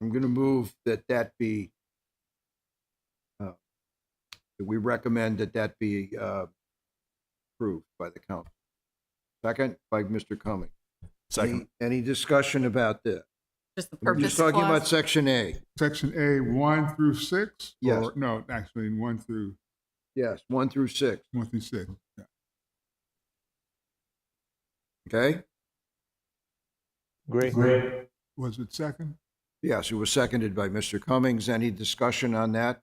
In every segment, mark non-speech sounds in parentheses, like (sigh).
I'm going to move that that be, uh, that we recommend that that be uh, approved by the council. Second, by Mr. Cummings. Second. Any any discussion about this? Just the We're purpose just talking about clause. section A. Section A, one through six? Yes. Or, no, actually, one through, Yes, one through six, one through six. Yeah. okay? Great. Was it second? Yes, it was seconded by Mr. Cummings. Any discussion on that?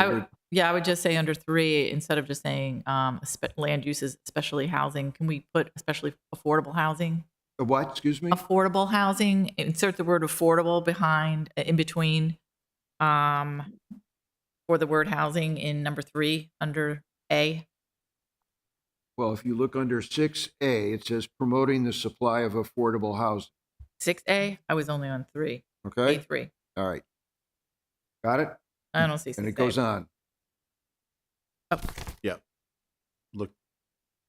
I would- Yeah, I would just say under three, instead of just saying um, spe- land uses, especially housing, can we put especially affordable housing? Uh, What, excuse me? Affordable housing, insert the word affordable behind, in between, um, for the word housing in number three, under A. Well, if you look under six A, it says promoting the supply of affordable housing, Six A, I was only on three, A okay? three. All right. Got it? I don't see six A. And it goes on. Look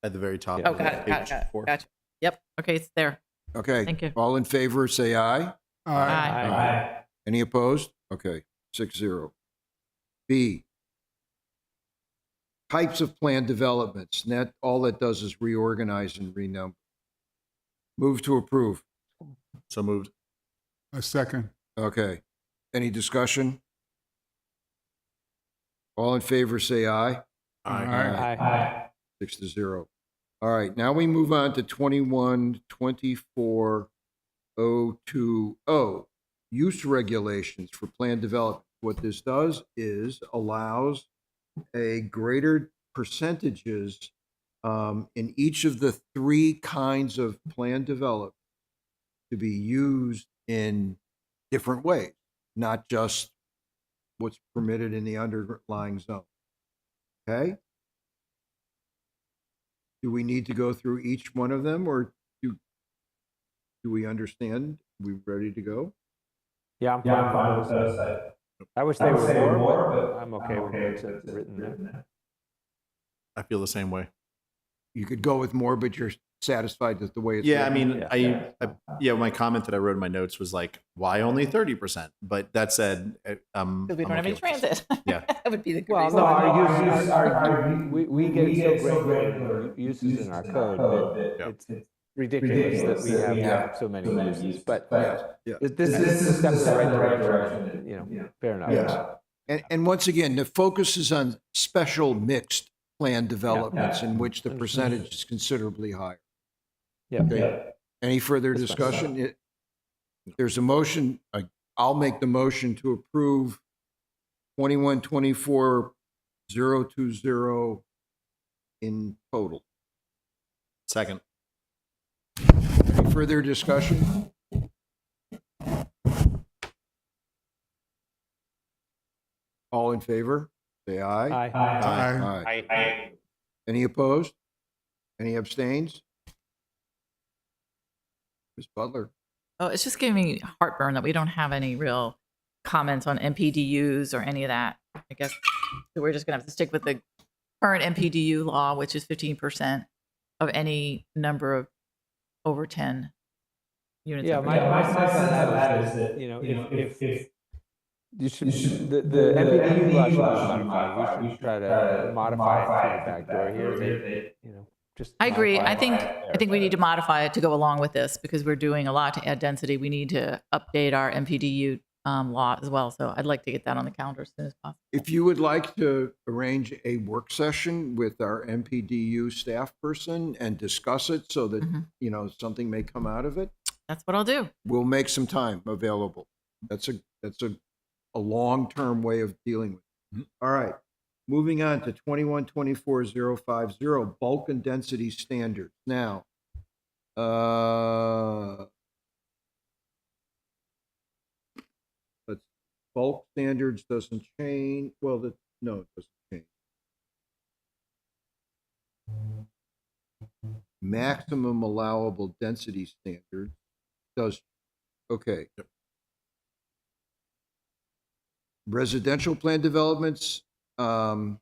at the very top. Oh, of got it, got page it, got four. it, gotcha. Yep, okay, it's there. Okay. Thank you. All in favor, say aye. Uh, Aye. Any opposed? Okay, six zero. B. Types of planned developments. And that, all that does is reorganize and renumber. Move to approve. So moved. A second. Okay. Any discussion? All in favor, say aye. Aye. Six to zero. All right, now we move on to twenty-one, twenty-four, oh, two, oh. Use regulations for planned development. What this does is allows a greater percentages um, in each of the three kinds of planned development to be used in different ways, not just what's permitted in the underlying zone. Okay? Do we need to go through each one of them or do, do we understand? We ready to go? Yeah, I'm Yeah, fine. I'm fine with those. I, I wish I they would were say more, more, but but I'm I'm okay with okay it. with It's written there. I feel the same way. You could go with more, but you're satisfied with the way it's. Yeah, I written. mean, Yeah. I, I, yeah, my comment that I wrote in my notes was like, why only 30%? But that said, uh, um, Because we don't I'm have any okay with this. transit. Yeah. (laughs) That would be the good Well, reason. no, our our uses, uses- our- our- our- we, we get so granular uses in our code that Yeah. it's ridiculous that we have, Yeah. so many so many uses. uses, But but yeah. this this this is a step in the right direction, direction, you yeah. know, fair enough. Yeah. And, and once again, the focus is on special mixed plan developments in which the Understood. percentage is considerably higher. Yeah. Okay. Any further That's fine. discussion? It- There's a motion, I- I'll make the motion to approve twenty-one, twenty-four, zero, two, zero in total. Second. Any further discussion? All in favor? Say aye. Aye. Aye. Aye. Any opposed? Any abstains? Ms. Butler? Oh, it's just giving me heartburn that we don't have any real comments on MPDUs or any of that. I guess that we're just gonna have to stick with the current MPDU law, which is fifteen percent of any number of over ten units. Yeah, over my, Yeah, my my- my sense on that is that, that, you know, you know, if, if, if you should, you should- the, the the MPD MPDU law should be law should be modified. We should try to uh, modify it to the factor here. They- you know, just. I agree. modify I it. think, I think we need to modify it to go along with this because we're doing a lot to add density. We need to update our MPDU um, law as well. So I'd like to get that on the calendar as soon as possible. If you would like to arrange a work session with our MPDU staff person and discuss it so that, Mhm. you know, something may come out of it, That's what I'll do. we'll make some time available. That's a, that's a, a long-term way of dealing with it. All right, moving on to twenty-one, twenty-four, zero, five, zero, bulk and density standards. Now, uh, but bulk standards doesn't change, well, the, no, it doesn't change. Maximum allowable density standard does Okay. Residential plan developments, um,